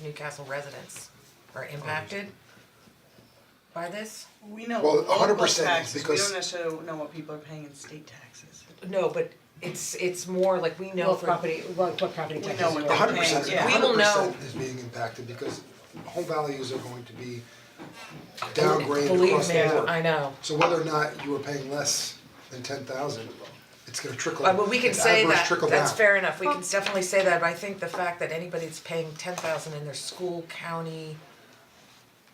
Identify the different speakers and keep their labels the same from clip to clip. Speaker 1: Newcastle residents are impacted by this?
Speaker 2: We know
Speaker 3: Well,
Speaker 2: local
Speaker 3: 100%
Speaker 2: taxes, we
Speaker 3: because-
Speaker 2: don't necessarily know what people are paying in state taxes.
Speaker 1: No, but it's it's more like we know
Speaker 4: What
Speaker 1: for
Speaker 4: property, what, what property
Speaker 2: We
Speaker 4: taxes?
Speaker 2: know what
Speaker 4: are-
Speaker 2: they're
Speaker 3: hundred
Speaker 2: paying,
Speaker 3: percent,
Speaker 2: yeah.
Speaker 1: We will
Speaker 3: hundred
Speaker 1: know.
Speaker 3: percent is being impacted because home values are going to be downgraded
Speaker 1: believe
Speaker 3: across
Speaker 1: me,
Speaker 3: the board.
Speaker 1: I know.
Speaker 3: So whether or not you are paying less than ten thousand, it's gonna trickle,
Speaker 1: Uh, But but we can
Speaker 3: it's
Speaker 1: say
Speaker 3: adverse
Speaker 1: that,
Speaker 3: trickle down.
Speaker 1: that's fair enough, we can definitely say that, but I think the fact that anybody that's paying ten thousand in their school, county,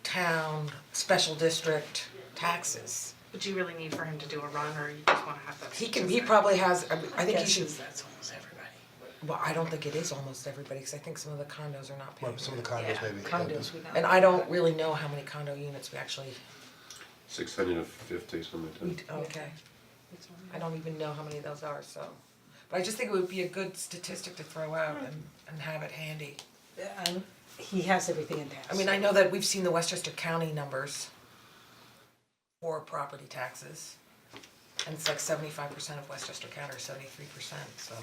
Speaker 1: town, special district taxes,
Speaker 5: But do you really need for him to do a run, or you just wanna have that?
Speaker 1: he can, he probably has, I I think he
Speaker 2: Guess
Speaker 1: should,
Speaker 2: is that's almost everybody.
Speaker 1: well, I don't think it is almost everybody, cause I think some of the condos are not paying.
Speaker 3: Well, some of the condos maybe, yeah,
Speaker 4: Condos, we know.
Speaker 1: And I don't really know how many condo units we actually,
Speaker 6: Six hundred and fifty, something
Speaker 1: we,
Speaker 6: like that.
Speaker 1: okay, I don't even know how many of those are, so. But I just think it would be a good statistic to throw
Speaker 4: Hmm.
Speaker 1: out and and have it handy.
Speaker 4: Um, he has everything in tax.
Speaker 1: I mean, I know that we've seen the Westchester County numbers for property taxes. And it's like seventy-five percent of Westchester County, or seventy-three percent, so.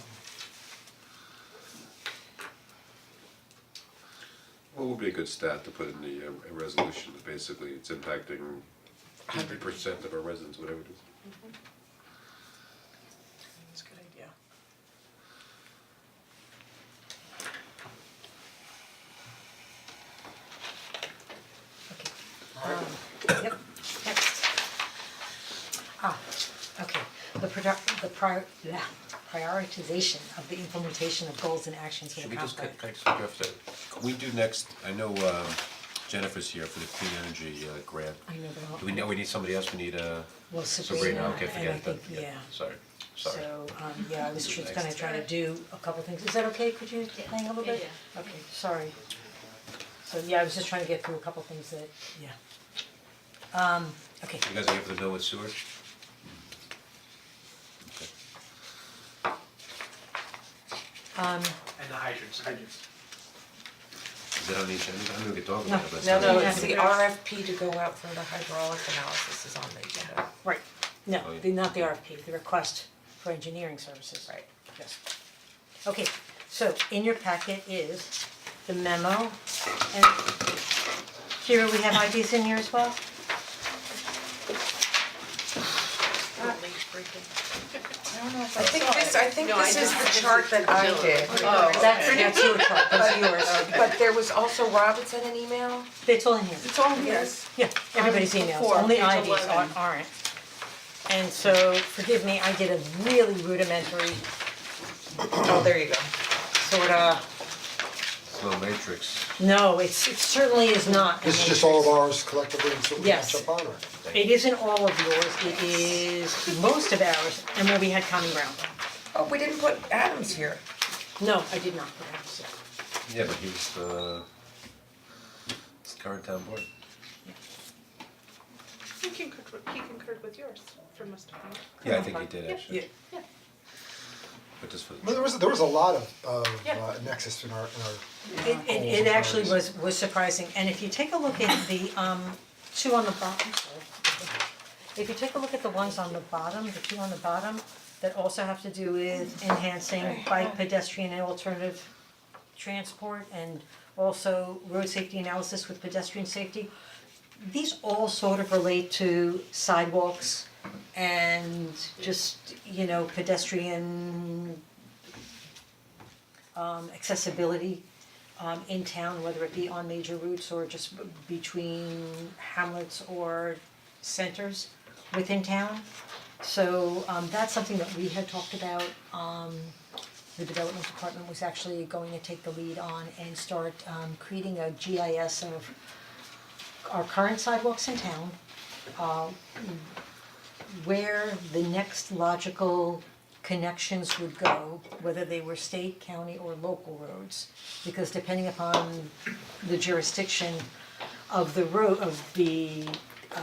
Speaker 6: What would be a good stat to put in the uh, a resolution, that basically it's impacting hundred percent of our residents, whatever it is.
Speaker 2: That's a good idea.
Speaker 5: Um,
Speaker 4: Yep, next. Ah, okay, the product, the prior, yeah, prioritization of the implementation of goals and actions for
Speaker 7: Should
Speaker 4: the
Speaker 7: we just,
Speaker 4: complex.
Speaker 7: can can I just interrupt for a second? Can we do next, I know um, Jennifer's here for the clean energy uh, grant.
Speaker 4: I know, but I'll-
Speaker 7: Do we know, we need somebody else, we need uh
Speaker 4: Well,
Speaker 7: Sabrina,
Speaker 4: Sabrina,
Speaker 7: okay,
Speaker 4: and
Speaker 7: forget
Speaker 4: I
Speaker 7: it then,
Speaker 4: think-
Speaker 7: yeah,
Speaker 4: yeah.
Speaker 7: sorry, sorry.
Speaker 4: So, um, yeah, I was just gonna
Speaker 7: Next.
Speaker 4: try to do a couple things, is that okay, could you hang a little bit? Okay, sorry. So, yeah, I was just trying to get through a couple things that, yeah. Um, okay,
Speaker 7: You guys are here for the bill with sewer?
Speaker 4: um,
Speaker 8: And the hydrants. Hydrants.
Speaker 7: Is that on the agenda? I'm gonna get dog
Speaker 4: No,
Speaker 7: about that.
Speaker 1: No, no,
Speaker 4: Yeah.
Speaker 1: it's the RFP to go out for the hydraulic analysis is on the agenda.
Speaker 4: right, no,
Speaker 7: Oh, yeah.
Speaker 4: the, not the RFP, the request for engineering services.
Speaker 1: Right.
Speaker 4: Yes. Okay, so in your packet is the memo, and Kira, we have IDs in here as well?
Speaker 1: I think this, I think this is the chart that I did.
Speaker 4: Oh. That's, that's your chart, that's yours,
Speaker 1: But there was also Robinson an email.
Speaker 4: it's all in here.
Speaker 1: It's all yours.
Speaker 4: Yeah, everybody's emails, only IDs aren't, aren't. And so, forgive me, I did a really rudimentary
Speaker 1: Oh, there you go.
Speaker 4: sort of,
Speaker 7: Slow matrix,
Speaker 4: no, it's, it certainly is not. a
Speaker 3: This is just all of
Speaker 4: matrix.
Speaker 3: ours collectively and so we
Speaker 4: Yes.
Speaker 3: catch up on or?
Speaker 4: It isn't all of yours, it is most of ours, and where we had common ground.
Speaker 1: Oh, we didn't put Adams here.
Speaker 4: No, I did not, perhaps,
Speaker 7: yeah, but he's the, it's the current town board.
Speaker 5: He concurred with, he concurred with yours for most of them.
Speaker 7: Yeah, I think he did actually.
Speaker 4: yeah.
Speaker 7: But just for the.
Speaker 3: Well, there was, there was a lot of of
Speaker 5: Yeah.
Speaker 3: uh, nexus in our, in our,
Speaker 4: It it it actually was was surprising, and if you take a look at the um two on the bottom, sorry. If you take a look at the ones on the bottom, the two on the bottom, that also have to do with enhancing bike pedestrian and alternative transport and also road safety analysis with pedestrian safety. These all sort of relate to sidewalks and just, you know, pedestrian um accessibility um in town, whether it be on major routes or just b- between hamlets or centers within town. So um that's something that we had talked about, um the development department was actually going to take the lead on and start um creating a GIS of our current sidewalks in town, uh where the next logical connections would go, whether they were state, county, or local roads. Because depending upon the jurisdiction of the road, of the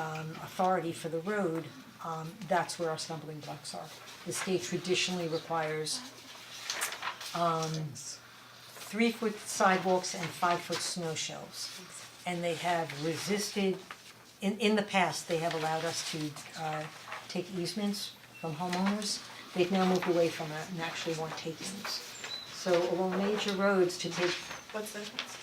Speaker 4: um authority for the road, um that's where our stumbling blocks are. The state traditionally requires um three-foot sidewalks and five-foot snow shelves. And they have resisted, in in the past, they have allowed us to uh take easements from homeowners. They've now moved away from that and actually want takings. So along major roads to take
Speaker 5: What's the difference?